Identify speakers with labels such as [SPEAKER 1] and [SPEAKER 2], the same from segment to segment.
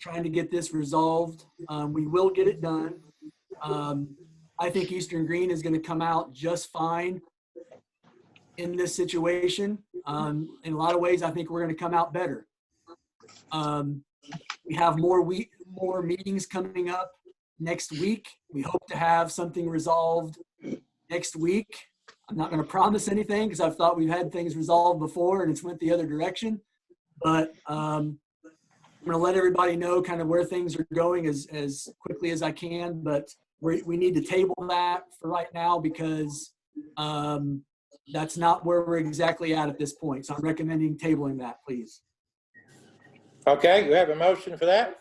[SPEAKER 1] trying to get this resolved. Um, we will get it done. Um, I think Eastern Green is gonna come out just fine in this situation. Um, in a lot of ways, I think we're gonna come out better. Um, we have more week, more meetings coming up next week. We hope to have something resolved next week. I'm not gonna promise anything because I've thought we've had things resolved before and it's went the other direction. But, um, I'm gonna let everybody know kind of where things are going as, as quickly as I can, but we, we need to table that for right now because um, that's not where we're exactly at at this point. So I'm recommending tabling that, please.
[SPEAKER 2] Okay, we have a motion for that.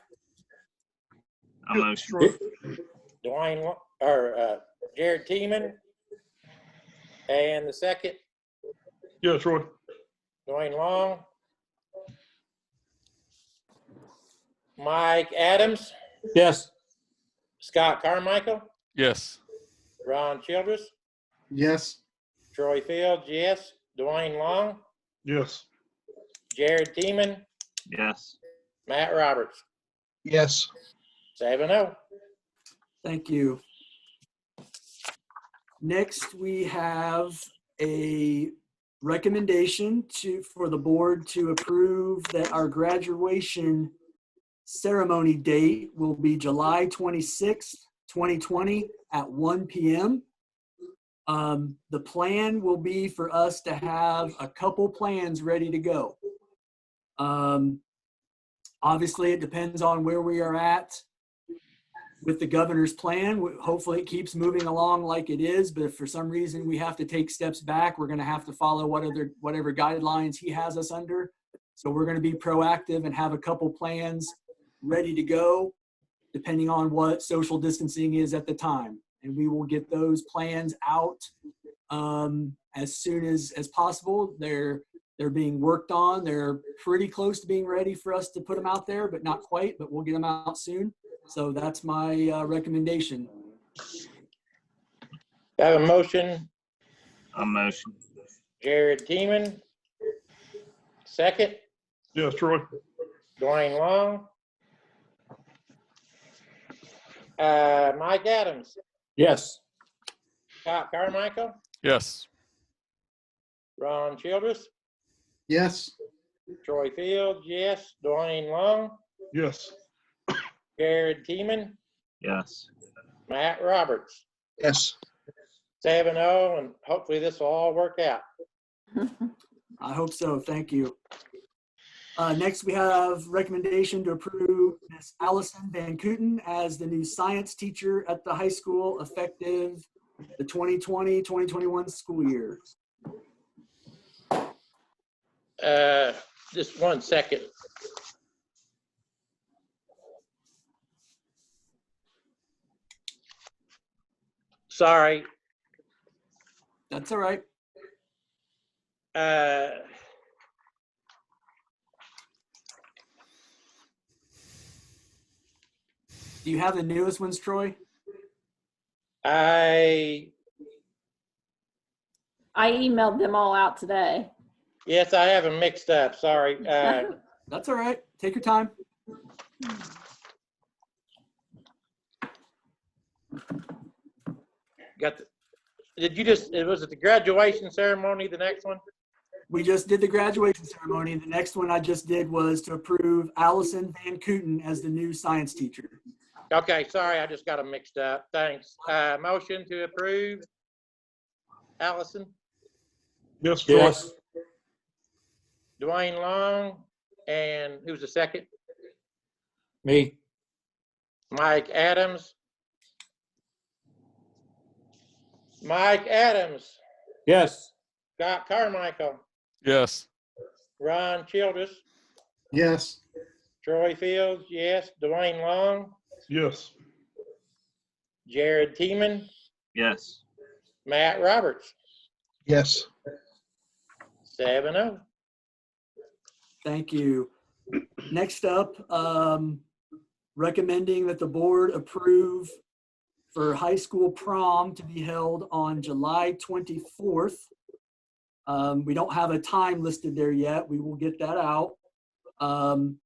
[SPEAKER 3] I motion.
[SPEAKER 2] Dwayne, Wa- or uh, Jared Teeman. And the second,
[SPEAKER 3] Yes, Roy.
[SPEAKER 2] Dwayne Long. Mike Adams,
[SPEAKER 4] Yes.
[SPEAKER 2] Scott Carmichael,
[SPEAKER 5] Yes.
[SPEAKER 2] Ron Childress,
[SPEAKER 4] Yes.
[SPEAKER 2] Troy Fields, yes, Dwayne Long,
[SPEAKER 3] Yes.
[SPEAKER 2] Jared Teeman,
[SPEAKER 3] Yes.
[SPEAKER 2] Matt Roberts,
[SPEAKER 4] Yes.
[SPEAKER 2] seven oh.
[SPEAKER 1] Thank you. Next, we have a recommendation to, for the board to approve that our graduation ceremony date will be July 26th, 2020 at 1 PM. Um, The plan will be for us to have a couple plans ready to go. Um, Obviously, it depends on where we are at with the governor's plan. w- Hopefully, it keeps moving along like it is. But if for some reason we have to take steps back, we're going to have to follow what other, whatever guidelines he has us under. So we're going to be proactive and have a couple plans ready to go, depending on what social distancing is at the time. And we will get those plans out um, as soon as as possible. They're they're being worked on. They're pretty close to being ready for us to put them out there, but not quite. But we'll get them out soon. So that's my uh, recommendation.
[SPEAKER 2] Have a motion,
[SPEAKER 3] I motion.
[SPEAKER 2] Jared Teeman. Second,
[SPEAKER 3] Yes, Troy.
[SPEAKER 2] Dwayne Long. Uh, Mike Adams,
[SPEAKER 4] Yes.
[SPEAKER 2] Scott Carmichael,
[SPEAKER 5] Yes.
[SPEAKER 2] Ron Childress,
[SPEAKER 4] Yes.
[SPEAKER 2] Troy Fields, yes, Dwayne Long,
[SPEAKER 3] Yes.
[SPEAKER 2] Jared Teeman,
[SPEAKER 3] Yes.
[SPEAKER 2] Matt Roberts.
[SPEAKER 4] Yes.
[SPEAKER 2] Seven oh, and hopefully this will all work out.
[SPEAKER 1] I hope so. Thank you. Uh, next, we have recommendation to approve Miss Allison Van Kooten as the new science teacher at the high school effective the 2020-2021 school year.
[SPEAKER 2] Uh, just one second. Sorry,
[SPEAKER 1] That's all right.
[SPEAKER 2] uh.
[SPEAKER 1] Do you have the newest ones, Troy?
[SPEAKER 2] I,
[SPEAKER 6] I emailed them all out today.
[SPEAKER 2] yes, I have them mixed up, sorry. Uh,
[SPEAKER 1] That's all right. Take your time.
[SPEAKER 2] Got, the did you just, was it the graduation ceremony, the next one?
[SPEAKER 1] We just did the graduation ceremony. The next one I just did was to approve Allison Van Kooten as the new science teacher.
[SPEAKER 2] Okay, sorry, I just got them mixed up, thanks. Uh, motion to approve. Allison,
[SPEAKER 3] Yes, Troy.
[SPEAKER 4] Yes.
[SPEAKER 2] Dwayne Long, and who's the second?
[SPEAKER 4] Me.
[SPEAKER 2] Mike Adams. Mike Adams,
[SPEAKER 4] Yes.
[SPEAKER 2] Scott Carmichael,
[SPEAKER 5] Yes.
[SPEAKER 2] Ron Childress,
[SPEAKER 4] Yes.
[SPEAKER 2] Troy Fields, yes, Dwayne Long,
[SPEAKER 3] Yes.
[SPEAKER 2] Jared Teeman,
[SPEAKER 3] Yes.
[SPEAKER 2] Matt Roberts,
[SPEAKER 4] Yes.
[SPEAKER 2] seven oh.
[SPEAKER 1] Thank you. Next up, um, recommending that the board approve for high school prom to be held on July 24th. Um, We don't have a time listed there yet. We will get that out. Um,